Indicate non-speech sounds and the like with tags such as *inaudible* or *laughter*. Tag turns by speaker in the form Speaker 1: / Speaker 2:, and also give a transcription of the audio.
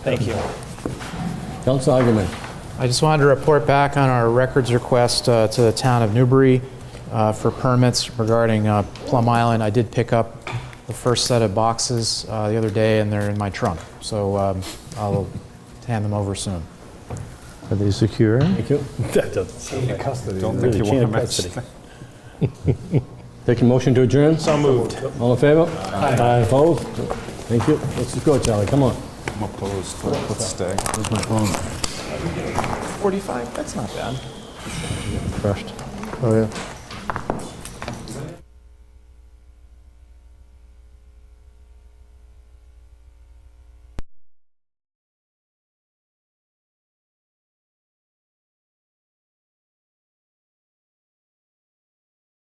Speaker 1: Thank you.
Speaker 2: Council Augerman.
Speaker 3: I just wanted to report back on our records request uh, to the town of Newbury uh, for permits regarding uh, Plum Island. I did pick up the first set of boxes uh, the other day, and they're in my trunk, so um, I'll hand them over soon.
Speaker 4: Are they secure?
Speaker 2: Thank you.
Speaker 1: *laughs* That doesn't sound like custody. Don't
Speaker 2: think you want to *laughs* Take a motion to adjourn.
Speaker 1: So moved.
Speaker 2: All in favor? Aye. Opposed? Thank you. Let's just go, Charlie, come on.
Speaker 5: I'm opposed, let's stay.
Speaker 1: 45, that's not bad.
Speaker 4: Oh, yeah.